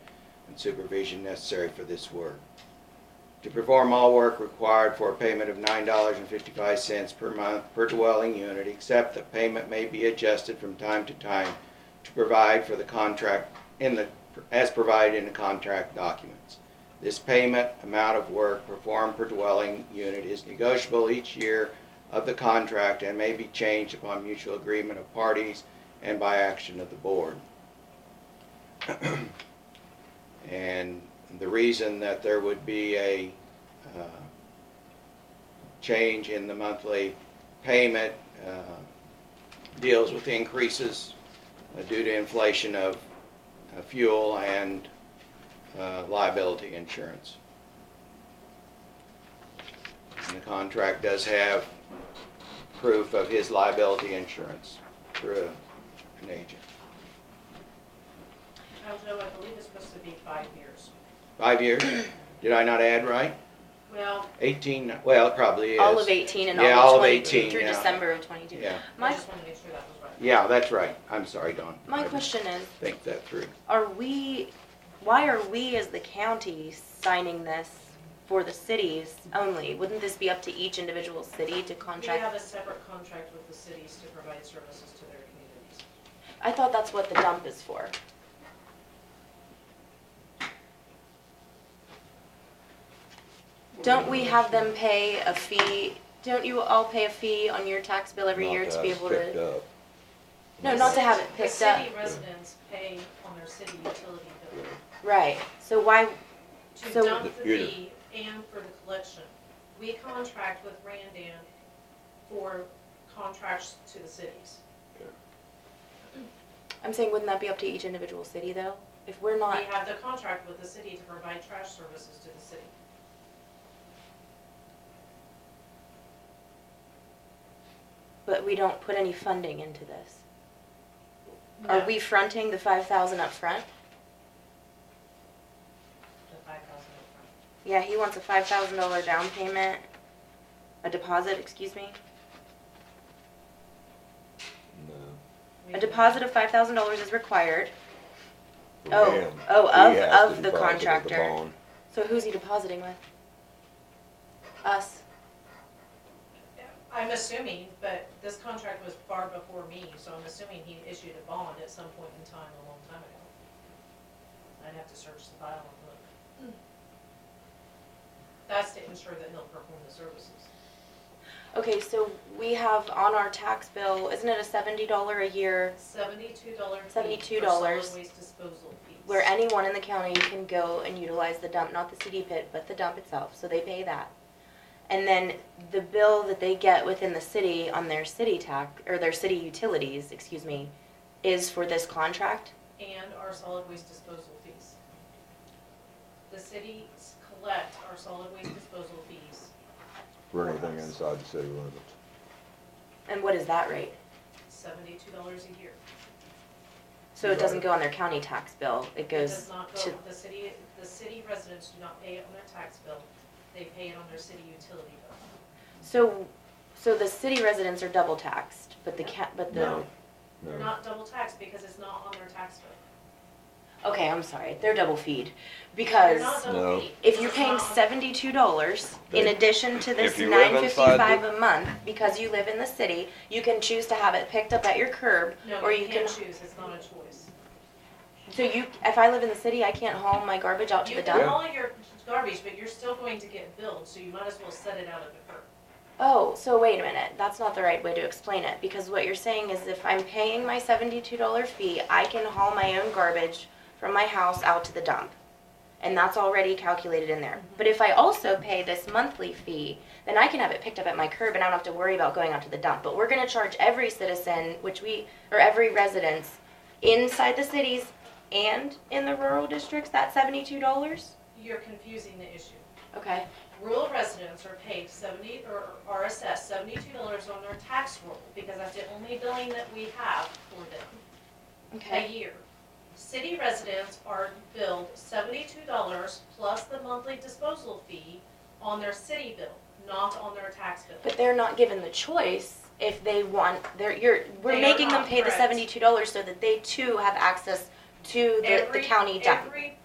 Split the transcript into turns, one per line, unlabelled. and supervision necessary for this work. To perform all work required for a payment of nine dollars and fifty-five cents per month per dwelling unit, except that payment may be adjusted from time to time to provide for the contract in the, as provided in the contract documents. This payment amount of work performed per dwelling unit is negotiable each year of the contract and may be changed upon mutual agreement of parties and by action of the board. And the reason that there would be a uh, change in the monthly payment uh, deals with increases uh, due to inflation of uh, fuel and uh, liability insurance. And the contract does have proof of his liability insurance through an agent.
Oh, no, I believe it's supposed to be five years.
Five years? Did I not add right?
Well,
18, well, it probably is.
All of eighteen and
Yeah,
all
all
of
of
twenty-two,
18,
through
yeah.
December of twenty-two.
Yeah,
I
My,
just wanted to make sure that was right.
yeah, that's right. I'm sorry, Dawn.
my
I
question is,
Think that through.
are we, why are we as the county signing this for the cities only? Wouldn't this be up to each individual city to
We have
contract?
a separate contract with the cities to provide services to their communities.
I thought that's what the dump is for. Don't we have them pay a fee, don't you all pay a fee on your tax bill every year to be able to? No, not to have it
The
picked up,
city residents pay on their city utility bill
right, so why,
to
So-
dump the
You're the-
fee and for the collection. We contract with Randan for contracts to the cities.
I'm saying wouldn't that be up to each individual city though? If we're
We
not,
have the contract with the city to provide trash services to the city.
but we don't put any funding into this. Are we fronting the five thousand up front?
The five thousand upfront.
Yeah, he wants a five thousand dollar down payment, a deposit, excuse me,
No.
We
a
do-
deposit of five thousand dollars is required.
For
Oh,
him,
oh,
he
of-
has to
of the
deposit
contractor.
bond.
So who's he depositing with? Us.
I'm assuming, but this contract was far before me, so I'm assuming he issued a bond at some point in time a long time ago. I'd have to search the file and look. That's to ensure that he'll perform the services.
Okay, so we have on our tax bill, isn't it a seventy dollar a year
Seventy-two dollar fee.
$72
for solid waste disposal fees.
where anyone in the county can go and utilize the dump, not the CD pit, but the dump itself, so they pay that. And then the bill that they get within the city on their city tax, or their city utilities, excuse me, is for this contract?
And our solid waste disposal fees. The cities collect our solid waste disposal fees,
For anything inside the city limits.
And what is that rate?
seventy-two dollars a year.
So it doesn't go on their county tax bill, it
It
goes
does not
to,
go, the city, the city residents do not pay it on their tax bill, they pay it on their city utility bill.
so, so the city residents are double taxed, but the ca, but the,
No,
They're
no.
not double taxed because it's not on their tax bill.
okay, I'm sorry, they're double feed.
They're
Because
not double
No.
paid.
If you're paying
It's not on-
seventy-two dollars in
They-
addition to this
if you live
nine
inside
fifty-five
the-
a month, because you live in the city, you can choose to have it picked up at your curb,
No,
or
you
you can.
can't choose, it's not a choice.
So you, if I live in the city, I can't haul my garbage out to
You
the
can
dump?
haul your garbage, but you're still going to get billed, so you might as well set it out of the curb.
Oh, so wait a minute, that's not the right way to explain it, because what you're saying is if I'm paying my seventy-two dollar fee, I can haul my own garbage from my house out to the dump. And that's already calculated in there. But if I also pay this monthly fee, then I can have it picked up at my curb and I don't have to worry about going out to the dump. But we're gonna charge every citizen, which we, or every residence inside the cities and in the rural districts, that seventy-two dollars?
You're confusing the issue.
Okay,
Rural residents are paid seventy, or are assessed seventy-two dollars on their tax roll, because that's the only billing that we have for them. a
okay,
year. City residents are billed seventy-two dollars plus the monthly disposal fee on their city bill, not on their tax bill.
but they're not given the choice if they want, they're, you're,
They
we're
are
making them
not,
pay the
correct.
seventy-two dollars so that they too have access to the, the
Every-
county dump.
Every